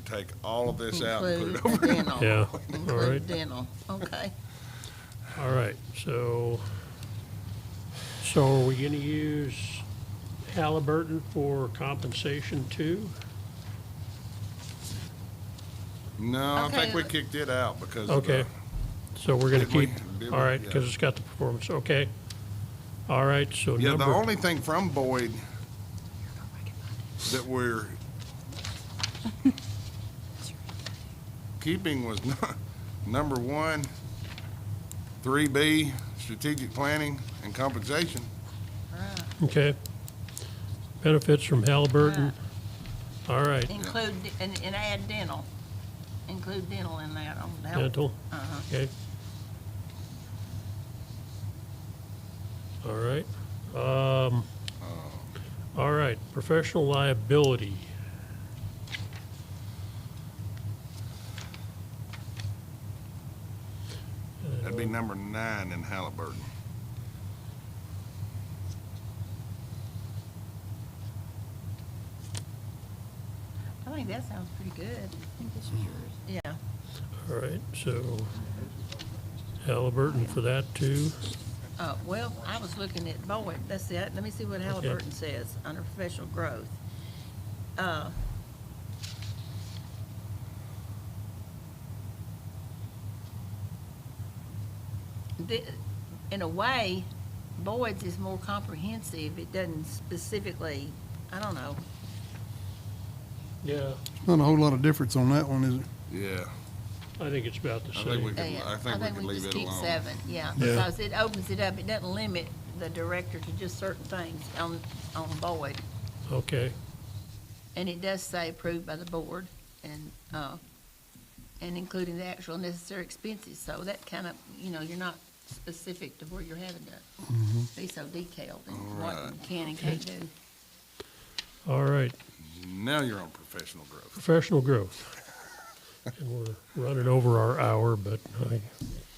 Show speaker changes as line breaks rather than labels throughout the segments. take all of this out and put it
Include
over.
dental.
Yeah, all right.
Include dental, okay.
All right, so, so are we gonna use Halliburton for compensation too?
No, I think
Okay.
we kicked it out because of
Okay,
the-
so we're gonna
Did we-
keep,
did we-
all right,
yeah.
because it's got the performance, okay. All right, so
Yeah, the
number,
only thing from Boyd that we're keeping was nu- number one, three B, strategic planning and compensation.
Right.
okay. Benefits from Halliburton, all right,
Include, d- and, and add dental. Include dental in that on that. one.
dental,
Uh-huh.
okay. All right, um,
Oh.
all right, professional liability.
That'd be number nine in Halliburton.
I think that sounds pretty good. I think this is yours. Yeah.
All right, so Halliburton for that too.
Uh, well, I was looking at Boyd, that's it, let me see what Halliburton says, under professional growth. Uh, The, in a way, Boyd's is more comprehensive, it doesn't specifically, I don't know,
Yeah.
Not a whole lot of difference on that one, is it?
Yeah,
I think it's about the
I think we
same.
could,
Uh,
I think we could leave
just
it
keep
alone.
seven, yeah,
Yeah.
because it opens it up, it doesn't limit the director to just certain things on, on Boyd.
Okay,
And it does say approved by the board and, uh, and including the actual necessary expenses, so that kind of, you know, you're not specific to where you're having to
Mm-hmm.
be so detailed in what you can and can't do.
all right,
Now you're on professional growth.
professional growth. And we're running over our hour, but I,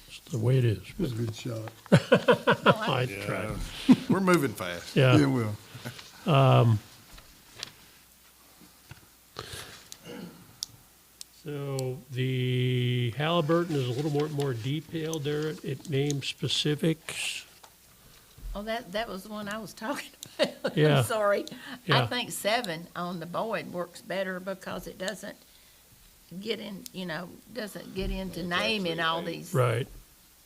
it's the way it is.
It's a good shot.
Oh,
I tried,
We're moving fast.
Yeah,
yeah.
well,
So the Halliburton is a little more, more detailed there. It- It names specifics.
Oh, that, that was the one I was talking about.
Yeah.
I'm sorry. I
Yeah.
think seven on the board works better because it doesn't get in, you know, doesn't get into naming all these.
Right,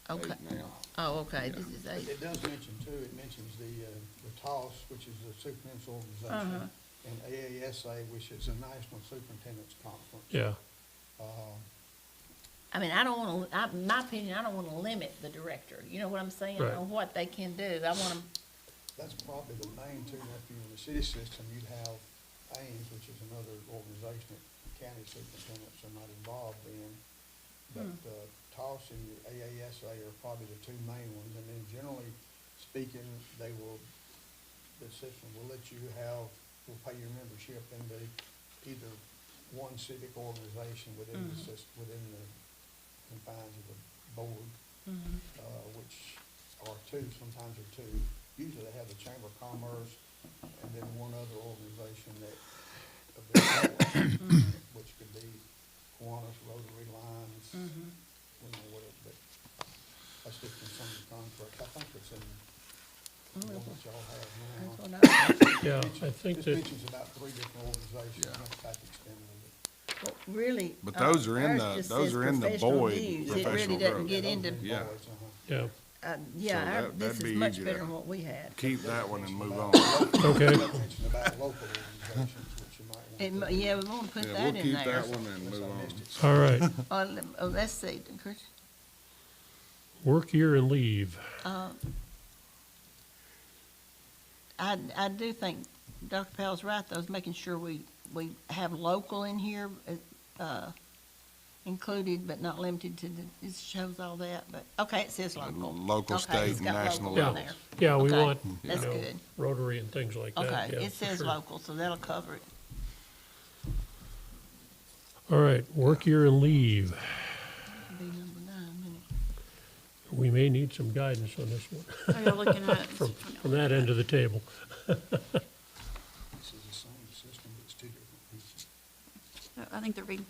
Okay,
Eight now.
oh, okay, this is eight.
It does mention too, it mentions the, uh, the TOS, which is the superintendent's organization, and AASA, which is the National Superintendent's Conference.
yeah,
I mean, I don't want to, in my opinion, I don't want to limit the director, you know what I'm saying,
Right.
on what they can do. I want them,
That's probably the main two, now, if you're in the city system, you'd have Ames, which is another organization that the county superintendents are not involved in. But, uh, TOS and your AASA are probably the two main ones, and then generally speaking, they will, the system will let you have, will pay your membership in the, either one civic organization within the system, within the confines of the board
Mm-hmm.
uh, which are two, sometimes are two. Usually they have the Chamber of Commerce and then one other organization that, of their choice,
Mm-hmm.
which could be Kiwanis, Rotary Lions,
Mm-hmm.
you know, whatever, but that's just in some of the contracts. I think it's in the one that y'all have now.
that's what I-
yeah. I
Mentions-
think
This
that,
mentions about three different organizations,
Yeah.
that's about the extent of it.
what really.
But
uh,
those are in
ours
the-
just
those
says
are in the
professional
Boyd
views. It really
professional
doesn't
growth.
get
Those
into,
are
Yeah.
boards, uh-huh.
yeah,
uh, yeah,
So
our-
that-
this
that'd
is
be
much
easy
better
to-
than what we had.
Keep that one and move on.
okay,
Mention about local organizations, which you might want to.
It, mu- yeah, we want to put
Yeah,
that
we'll
in
keep that
there.
one and move on.
all right.
Uh, lem- oh, let's see, Chris,
Work year and leave.
I, I do think Dr. Powell's right, though, is making sure we, we have local in here, uh, uh, included but not limited to the, it shows all that, but, okay, it says local.
Local,
Okay,
state,
it's
and
got local
national
in
Yeah,
level.
there.
yeah, we
Okay,
want, you
that's
know,
good.
Rotary and things like that,
Okay,
yeah.
it
for
says
sure.
local, so that'll cover it.
All right, work year and leave.
It'll Be number nine, wouldn't it?
We may need some guidance on this one,
Are you looking at?
from, from that end of the table.
This is the same system, but it's two different pieces.
I think they're reading